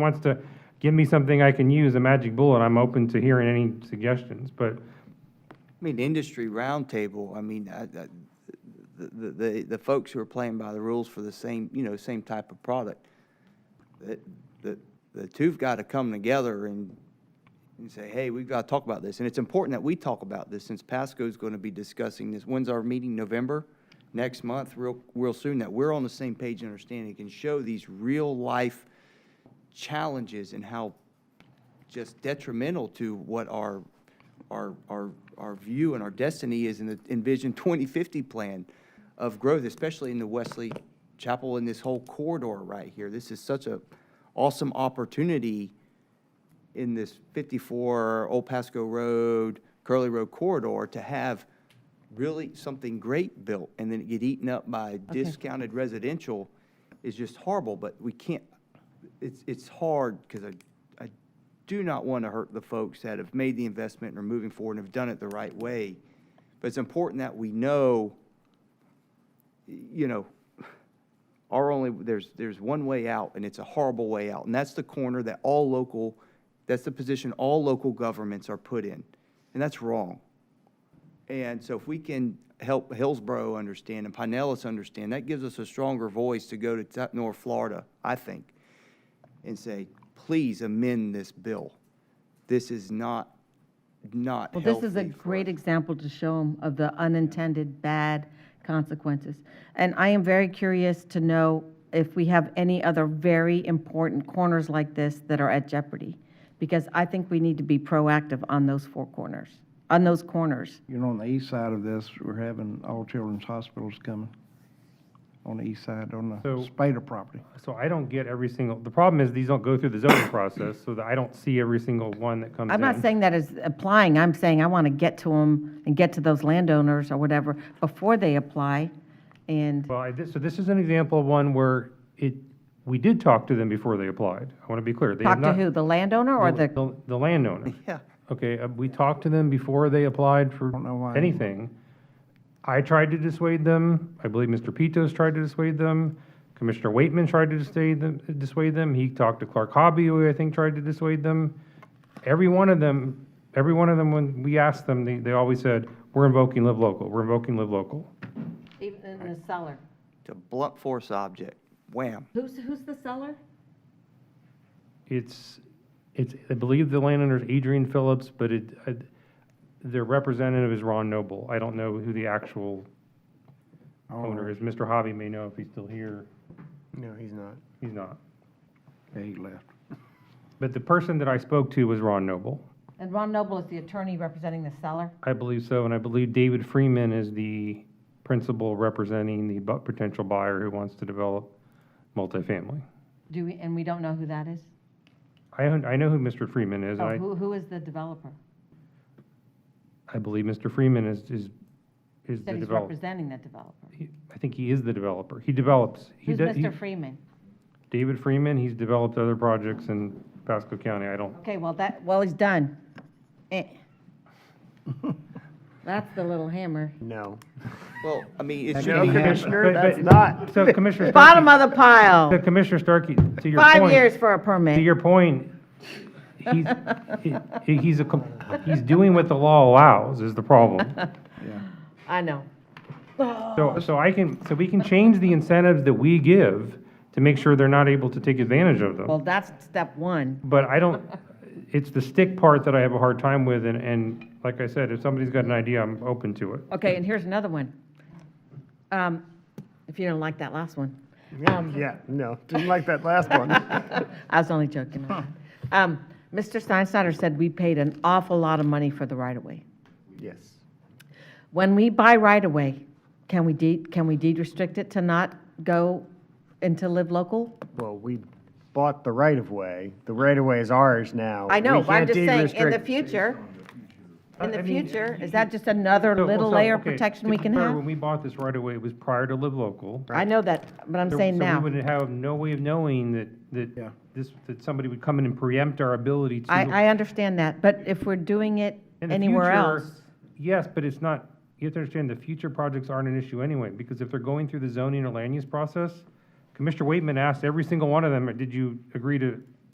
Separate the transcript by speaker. Speaker 1: wants to give me something I can use, a magic bullet, I'm open to hearing any suggestions, but
Speaker 2: I mean, the industry roundtable, I mean, I, I, the, the- the, the folks who are playing by the rules for the same, you know, same type of product, that, that, the two've got to come together and, and say, hey, we've got to talk about this. And it's important that we talk about this since Pasco's going to be discussing this. When's our meeting? November? Next month, real, real soon, that we're on the same page and understanding, can show these real-life challenges and how just detrimental to what our, our, our, our view and our destiny is in the Envision 2050 plan of growth, especially in the Wesley Chapel and this whole corridor right here. This is such a awesome opportunity in this 54 Old Pasco Road, Curly Road corridor to have really something great built and then it get eaten up by discounted residential is just horrible, but we can't, it's, it's hard because I, I do not want to hurt the folks that have made the investment and are moving forward and have done it the right way. But it's important that we know, y- you know, our only, there's, there's one way out, and it's a horrible way out. And that's the corner that all local, that's the position all local governments are put in. And that's wrong. And so if we can help Hillsborough understand and Pinellas understand, that gives us a stronger voice to go to t- North Florida, I think, and say, please amend this bill. This is not, not
Speaker 3: Well,
Speaker 2: healthy.
Speaker 3: this is a
Speaker 2: for
Speaker 3: great
Speaker 2: us."
Speaker 3: example to show them of the unintended bad consequences. And I am very curious to know if we have any other very important corners like this that are at jeopardy. Because I think we need to be proactive on those four corners, on those corners.
Speaker 4: You know, on the east side of this, we're having all children's hospitals coming on the east side, on the
Speaker 1: So-
Speaker 4: Spada property.
Speaker 1: So I don't get every single, the problem is these don't go through the zoning process, so that I don't see every single one that comes in.
Speaker 3: I'm not saying that as applying, I'm saying I want to get to them and get to those landowners or whatever before they apply. And,
Speaker 1: Well, I, this- so this is an example of one where it, we did talk to them before they applied. I want to be clear. They have
Speaker 3: talk
Speaker 1: not-
Speaker 3: to who, the landowner or the?
Speaker 1: The the landowner.
Speaker 2: Yeah.
Speaker 1: Okay, uh, we talked to them before they applied for
Speaker 4: Don't know why.
Speaker 1: anything. I tried to dissuade them. I believe Mr. Pitos tried to dissuade them. Commissioner Waitman tried to dissuade them, dissuade them. He talked to Clark Hobby, who I think tried to dissuade them. Every one of them, every one of them, when we asked them, they, they always said, we're invoking live local, we're invoking live local.
Speaker 3: Even the seller.
Speaker 2: It's a blunt force object. Wham.
Speaker 3: Who's, who's the seller?
Speaker 1: It's, it's, I believe the landowner's Adrian Phillips, but it, I- their representative is Ron Noble. I don't know who the actual
Speaker 4: Oh.
Speaker 1: owner
Speaker 3: Oh.
Speaker 1: is. Mr. Hobby may know if he's still here.
Speaker 4: No, he's not.
Speaker 1: He's not.
Speaker 4: Yeah, he left.
Speaker 1: But the person that I spoke to was Ron Noble.
Speaker 3: And Ron Noble is the attorney representing the seller?
Speaker 1: I believe so, and I believe David Freeman is the principal representing the bu- potential buyer who wants to develop multifamily.
Speaker 3: Do we, and we don't know who that is?
Speaker 1: I, don't- I know who Mr. Freeman is. and
Speaker 3: Oh,
Speaker 1: I,
Speaker 3: who, who is the developer?
Speaker 1: I believe Mr. Freeman is, is, is the
Speaker 3: That he's
Speaker 1: developer.
Speaker 3: representing that developer.
Speaker 1: I think he is the developer. He develops. He
Speaker 3: Who's
Speaker 1: does- he-
Speaker 3: Mr. Freeman?
Speaker 1: David Freeman, he's developed other projects in Pasco County. I don't,
Speaker 3: Okay, well, that, well, he's done. Eh. That's the little hammer.
Speaker 5: No.
Speaker 2: Well, I mean, it's.
Speaker 4: No,
Speaker 2: should be-
Speaker 1: but-
Speaker 4: Commissioner.
Speaker 5: Commissioner,
Speaker 1: but-
Speaker 5: that's not.
Speaker 1: so Commissioner Starkey.
Speaker 3: Bottom of the
Speaker 1: So
Speaker 3: pile.
Speaker 1: Commissioner Starkey, to your point.
Speaker 3: Five years for a
Speaker 1: To
Speaker 3: permit.
Speaker 1: your point, he's, he- he's a, com- he's doing what the law allows is the problem.
Speaker 4: Yeah.
Speaker 3: I know.
Speaker 1: So, so I can, so we can change the incentives that we give to make sure they're not able to take advantage of
Speaker 3: Well,
Speaker 1: them.
Speaker 3: that's step one.
Speaker 1: But I don't, it's the stick part that I have a hard time with, and, and like I said, if somebody's got an idea, I'm open to it.
Speaker 3: Okay, and here's another one. Um, if you don't like that last one.
Speaker 5: Yeah, no, didn't like that last one.
Speaker 3: I was only joking. Um, Mr. Steinsteiner said we paid an awful lot of money for the right-of-way.
Speaker 5: Yes.
Speaker 3: When we buy right-of-way, can we deed, can we deed restrict it to not go into live local?
Speaker 5: Well, we bought the right-of-way. The right-of-way is ours now.
Speaker 3: I know,
Speaker 5: We
Speaker 3: but I'm
Speaker 5: can't
Speaker 3: just
Speaker 5: deed
Speaker 3: saying, in the
Speaker 5: restrict-
Speaker 3: future, in
Speaker 1: I- I
Speaker 3: the
Speaker 1: mean,
Speaker 3: future, is that just another
Speaker 1: So-
Speaker 3: little
Speaker 1: so,
Speaker 3: layer of
Speaker 1: okay,
Speaker 3: protection
Speaker 1: to
Speaker 3: we
Speaker 1: be
Speaker 3: can
Speaker 1: fair, When
Speaker 3: have?
Speaker 1: we bought this right away, it was prior to Live Local.
Speaker 3: I know that, but I'm
Speaker 1: So-
Speaker 3: saying
Speaker 1: So we
Speaker 3: now.
Speaker 1: would have no way of knowing that, that this, that somebody would come in and preempt our ability to.
Speaker 3: I, I understand that, but if we're doing it
Speaker 1: In the
Speaker 3: anywhere
Speaker 1: future,
Speaker 3: else,
Speaker 1: Yes, but it's not, you have to understand, the future projects aren't an issue anyway, because if they're going through the zoning or land use process, Commissioner Waitman asked every single one of them, did you agree to